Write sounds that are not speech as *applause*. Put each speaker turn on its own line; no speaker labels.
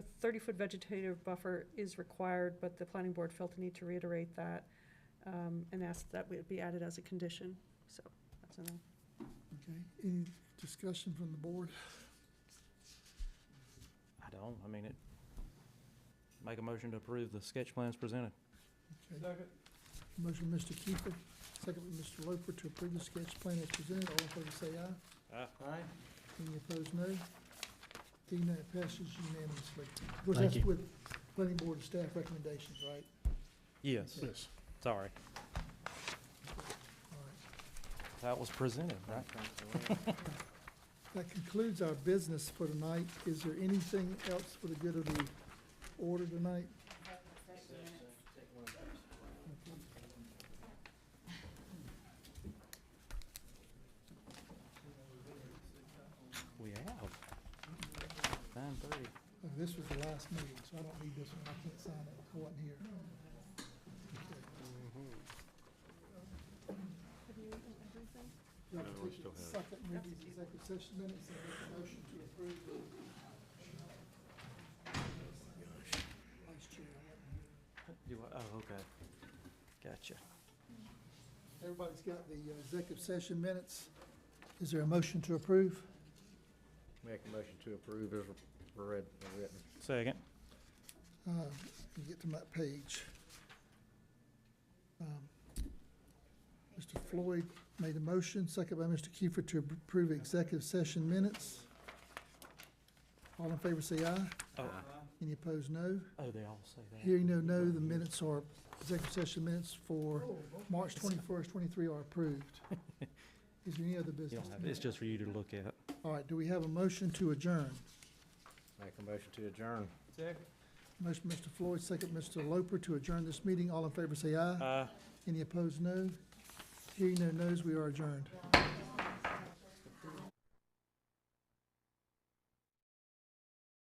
thirty-foot vegetative buffer is required, but the planning board felt the need to reiterate that, um, and asked that it be added as a condition, so, that's enough.
Okay, any discussion from the board?
I don't, I mean, it, make a motion to approve the sketch plans presented.
Okay. Motion by Mr. Kiefer, second by Mr. Loper to approve the sketch plan as presented. All in favor say aye.
Ah.
Aye.
Any opposed, no. Seeing none, it passes unanimously. Of course,
Thank
that's
you.
with planning board and staff recommendations, right?
Yes,
Yes.
sorry,
All right.
that was presented, right?
That concludes our business for tonight. Is there anything else for the good of the order tonight?
We have. Nine thirty.
Oh, This was the last meeting, so I don't need this one. I can't sign it. I wasn't here.
Have you eaten everything?
We have to take the second reading of executive session minutes and make a motion to approve. Vice Chair, I wasn't here.
Do I, oh, okay. Gotcha.
Everybody's got the uh, executive session minutes. Is there a motion to approve?
Make a motion to approve as read, written.
Second.
Uh, let me Get to that page. Um, Mr. Floyd made a motion, second by Mr. Kiefer to approve executive session minutes. All in favor say aye.
Oh,
Any opposed, no.
oh, they all say that.
Hearing no, no, the minutes are, executive session minutes for March twenty-first, twenty-three are
*laughs*
approved. Is there any other
You
business?
don't have, it's just for you to look at.
All right, do we have a motion to adjourn?
Make a motion to adjourn.
Motion, Mr. Floyd, second, Mr. Loper, to adjourn this meeting. All in favor, say aye.
Uh,
Any opposed, no. Hearing no, no's, we are adjourned.